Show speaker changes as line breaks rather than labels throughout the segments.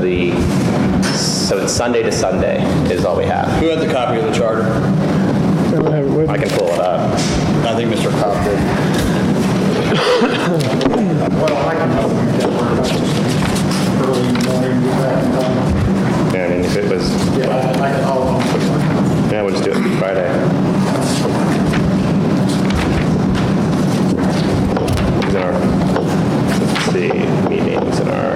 the, so it's Sunday to Sunday is all we have.
Who had the copy of the charter?
I can pull it up.
I think Mr. Cobb did.
Well, I can help you get word out early in the morning, get back in time.
Yeah, I mean, if it was,
Yeah, I can help them.
yeah, we'll just do it Friday. Is in our, let's see, meetings in our.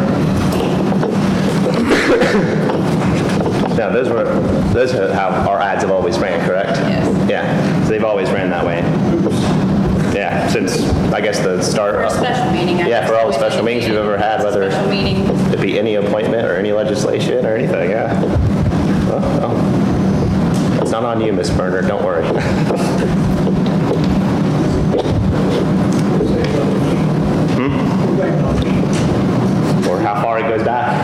Now, those were, those are how our ads have always ran, correct? Yes. Yeah, so they've always ran that way. Yeah, since, I guess, the start.
For a
of-
special meeting. I
Yeah, for all the
guess.
special meetings we've ever had, whether
Special meeting.
it be any appointment or any legislation or anything, yeah. Well, well, It's not on you, Miss Berner, don't worry. Hmm? Or how far it goes back,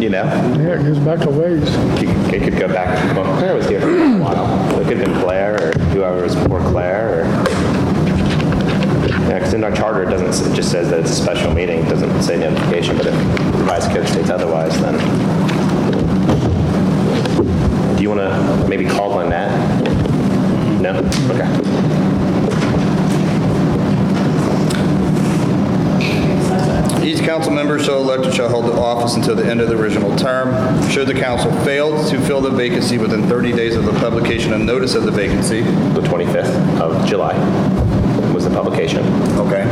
you know?
Yeah, it goes back a ways.
It could go back, well, Claire was here for a while. It could have been Claire or whoever was before Claire or, yeah, because in our charter, it doesn't, s- it just says that it's a special meeting, it doesn't say notification, but if the vice code states otherwise, then. Do you want to maybe call on that? No? Okay.
Each council member so elected shall hold the office until the end of the original term. Should the council fail to fill the vacancy within 30 days of the publication and notice of the vacancy,
The 25th of July was the publication.
okay,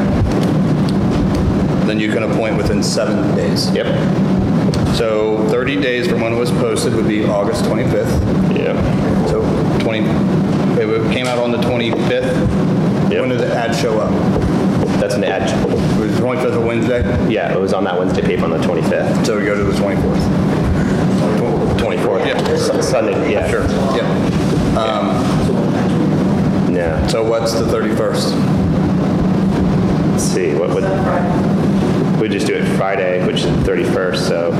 then you can appoint within seven days.
Yep.
So 30 days from when it was posted would be August 25th.
Yeah.
So 20, it would- came out on the 25th.
Yep.
When did the ad show up?
That's an ad.
Was the 25th a Wednesday?
Yeah, it was on that Wednesday paper on the 25th.
So we go to the 24th.
24th.
Yeah.
Su- Sunday, yeah. Sure.
Yep.
Yeah.
So what's the 31st?
Let's see, what would, we just do it Friday, which is the 31st, so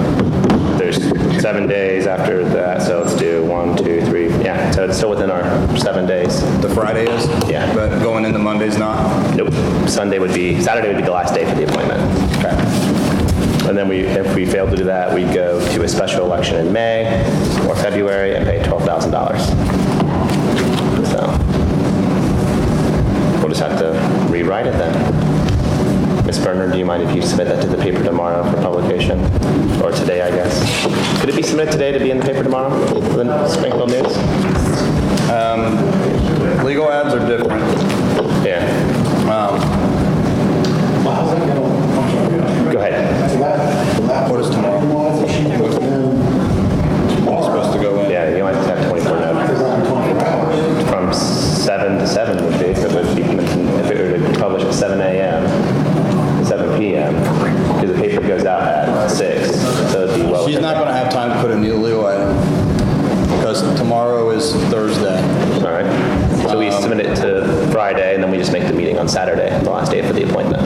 there's seven days after that, so let's do one, two, three,
Yeah, so it's still within our seven days.
The Friday is?
Yeah.
But going into Monday's not?
Nope. Sunday would be, Saturday would be the last day for the appointment. And then we, if we fail to do that, we'd go to a special election in May or February and pay $12,000. So we'll just have to rewrite it then. Ms. Berner, do you mind if you submit that to the paper tomorrow for publication? Or today, I guess? Could it be submitted today to be in the paper tomorrow for the Springfield News?
Legal ads are different.
Yeah. Um,
Well, how's that gonna, I'm sorry.
Go ahead.
What is tomorrow?
It's supposed to go in.
Yeah, you might just have 24 notices. From 7 to 7 would be, if it would be, if it were to publish at 7 AM, 7 PM, because the paper goes out at 6, so it'd be well.
She's not going to have time to put in the legal item because tomorrow is Thursday.
All right. So we submit it to Friday, and then we just make the meeting on Saturday, the last day for the appointment.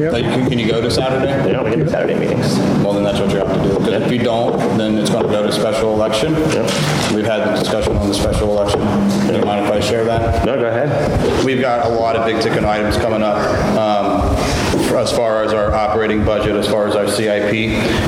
Like, can can you go to Saturday?
Yeah, we can do Saturday meetings.
Well, then that's what you have to do. Because if you don't, then it's going to go to special election. We've had the discussion on the special election. Do you mind if I share that?
No, go ahead.
We've got a lot of big ticket items coming up, um, as far as our operating budget, as far as our CIP,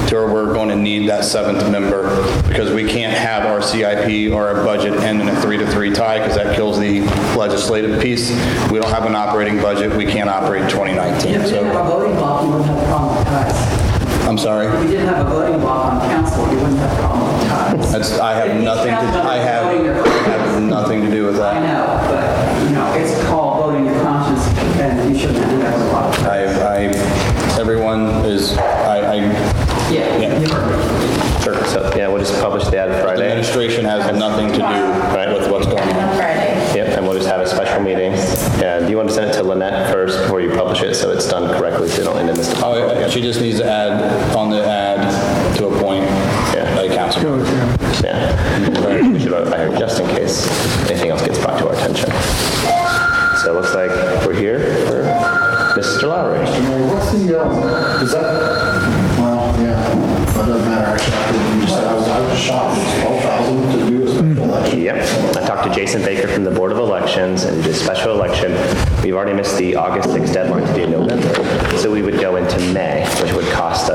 to where we're going to need that seventh member, because we can't have our CIP or our budget end in a three to three tie, because that kills the legislative piece. We don't have an operating budget, we can't operate 2019,
If you didn't have a
so,
voting block, you wouldn't have a problem with ties.
I'm
If
sorry.
you didn't have a voting block on council, you wouldn't have a problem with ties.
That's, I have nothing to, I have, I have nothing to do with that.
I know, but, you know, it's called voting your conscience, and you shouldn't have to have a block.
I, I, everyone is, I, I,
Yeah, you heard me.
Sure. So, yeah, we'll just publish the ad
the
Friday.
administration has nothing to do with what's going on.
On Friday.
Yep, and we'll just have a special meeting. And you want to send it to Lynette first before you publish it, so it's done correctly, so you don't end in this.
Oh, yeah, she just needs to add, on the ad, to appoint a council. member.
Yeah. We should vote by here, just in case anything else gets brought to our attention. So it looks like we're here for Mr. Lowry.
What's the, um, is that, well, yeah, that doesn't matter, actually, I couldn't use that. I was, I was shocked, it's 12,000 to do this.
Yep. I talked to Jason Baker from the Board of Elections and the special election. We've already missed the August 6th deadline to do November, so we would go into May, which would cost us.